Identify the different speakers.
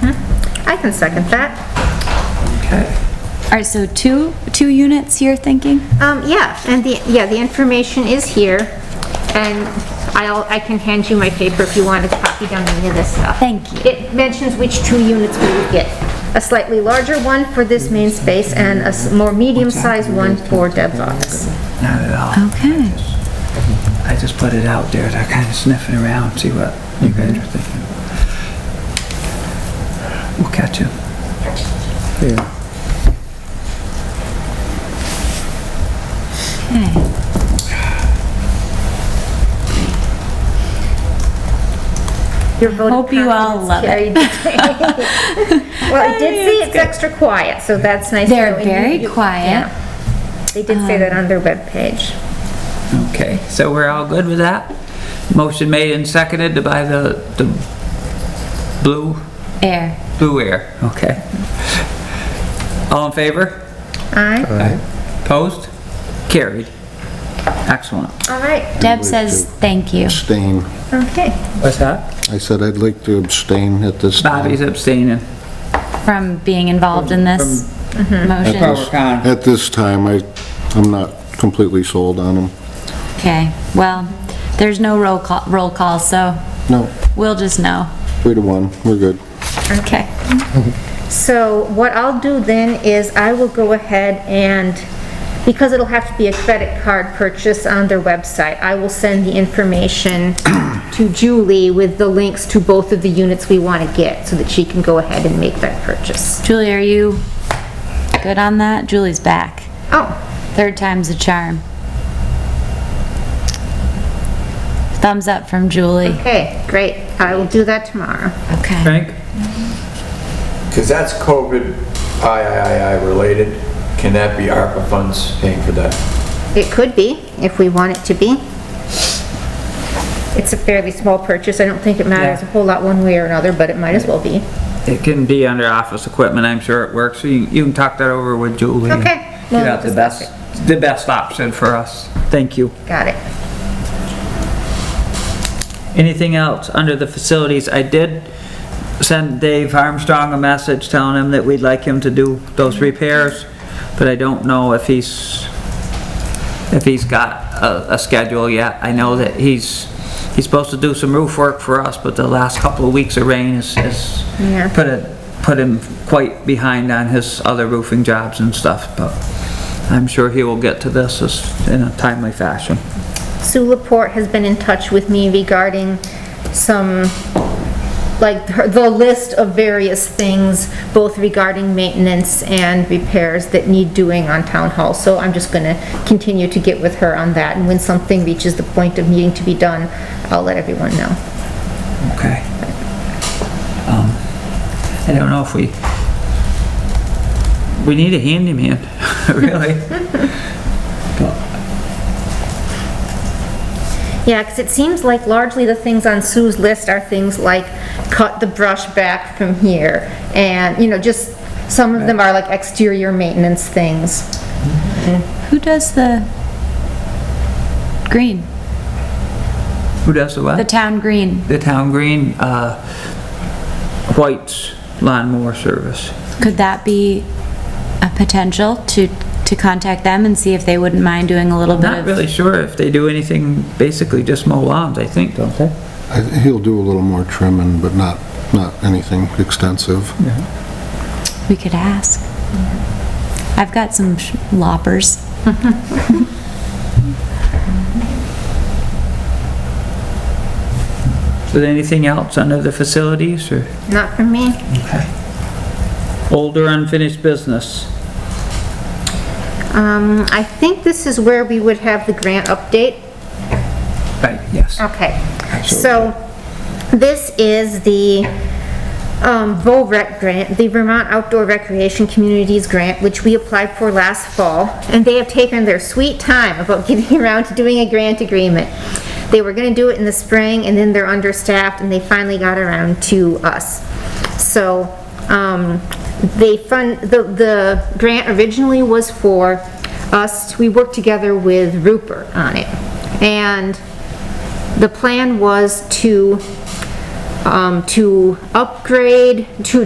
Speaker 1: Mm-hmm. I can second that.
Speaker 2: Okay.
Speaker 3: All right, so two, two units you're thinking?
Speaker 1: Um, yeah, and the, yeah, the information is here, and I'll, I can hand you my paper if you want to copy down any of this stuff.
Speaker 3: Thank you.
Speaker 1: It mentions which two units we would get, a slightly larger one for this main space and a s- more medium-sized one for Deb's office.
Speaker 2: Not at all.
Speaker 3: Okay.
Speaker 2: I just put it out there to kind of sniff it around, see what you guys are thinking. We'll catch you.
Speaker 4: Yeah,
Speaker 3: Okay.
Speaker 1: Your vote of
Speaker 3: Hope you all
Speaker 1: confidence
Speaker 3: love
Speaker 1: carried
Speaker 3: it.
Speaker 1: the day. Well, I did see it's extra quiet, so that's nice. to
Speaker 3: They're
Speaker 1: know, and you-
Speaker 3: very
Speaker 1: you-
Speaker 3: quiet. Um,
Speaker 1: yeah. They did say that on their webpage.
Speaker 2: Okay, so we're all good with that? Motion made and seconded to buy the, the blue,
Speaker 3: Air.
Speaker 2: blue air, okay. All in favor?
Speaker 1: Aye,
Speaker 2: Aye. Opposed? Carried. Excellent.
Speaker 1: all right,
Speaker 3: Deb says thank you.
Speaker 4: abstain.
Speaker 1: okay.
Speaker 2: What's that?
Speaker 4: I said I'd like to abstain at this time.
Speaker 2: Bobby's abstaining.
Speaker 3: from being involved in this Mm-hmm. motion.
Speaker 2: Power con.
Speaker 4: At this time, I, I'm not completely sold on them.
Speaker 3: Okay, well, there's no roll call, roll call, so
Speaker 4: No,
Speaker 3: we'll just know.
Speaker 4: three to one, we're good.
Speaker 3: Okay.
Speaker 1: So what I'll do then is I will go ahead and, because it'll have to be a credit card purchase on their website, I will send the information to Julie with the links to both of the units we want to get, so that she can go ahead and make that purchase.
Speaker 3: Julie, are you good on that? Julie's back.
Speaker 1: Oh,
Speaker 3: Third time's a charm. Thumbs up from Julie.
Speaker 1: okay, great. I will do that tomorrow.
Speaker 3: Okay.
Speaker 2: Frank?
Speaker 5: Because that's COVID III related. Can that be ARPA funds paying for that?
Speaker 1: It could be, if we want it to be. It's a fairly small purchase. I don't think it matters a whole lot one way or another, but it might as well be.
Speaker 2: It can be under office equipment, I'm sure it works, so you, you can talk that over with Julie. and
Speaker 1: Okay. Well,
Speaker 2: Get out the
Speaker 1: discuss
Speaker 2: best, the best option for us. Thank you.
Speaker 1: Got it.
Speaker 2: Anything else under the facilities? I did send Dave Armstrong a message telling him that we'd like him to do those repairs, but I don't know if he's, if he's got a, a schedule yet. I know that he's, he's supposed to do some roof work for us, but the last couple of weeks of rain has, has
Speaker 1: Yeah.
Speaker 2: put it, put him quite behind on his other roofing jobs and stuff, but I'm sure he will get to this as- in a timely fashion.
Speaker 1: Sue Laporte has been in touch with me regarding some, like, her- the list of various things, both regarding maintenance and repairs that need doing on Town Hall. So I'm just gonna continue to get with her on that, and when something reaches the point of needing to be done, I'll let everyone know.
Speaker 2: Okay. Um, I don't know if we, we need a handyman, really.
Speaker 1: Yeah, because it seems like largely the things on Sue's list are things like cut the brush back from here, and, you know, just, some of them are like exterior maintenance things.
Speaker 3: Who does the green?
Speaker 2: Who does the
Speaker 3: The
Speaker 2: what?
Speaker 3: town green?
Speaker 2: The town green, uh, White's lawnmower service.
Speaker 3: Could that be a potential to, to contact them and see if they wouldn't mind doing a little bit
Speaker 2: Not
Speaker 3: of?
Speaker 2: really sure if they do anything, basically just mow lawns, I think, don't they?
Speaker 4: I- He'll do a little more trimming, but not, not anything extensive.
Speaker 3: We could ask. I've got some sh- loppers.
Speaker 2: So anything else under the facilities or
Speaker 1: Not for me.
Speaker 2: older unfinished business?
Speaker 1: Um, I think this is where we would have the grant update.
Speaker 2: Right, yes.
Speaker 1: Okay. So this is the um, VOREC grant, the Vermont Outdoor Recreation Communities Grant, which we applied for last fall. And they have taken their sweet time about getting around to doing a grant agreement. They were going to do it in the spring and then they're understaffed and they finally got around to us. So um, they fund, the, the grant originally was for us, we worked together with Rupert on it. And the plan was to, um, to upgrade, to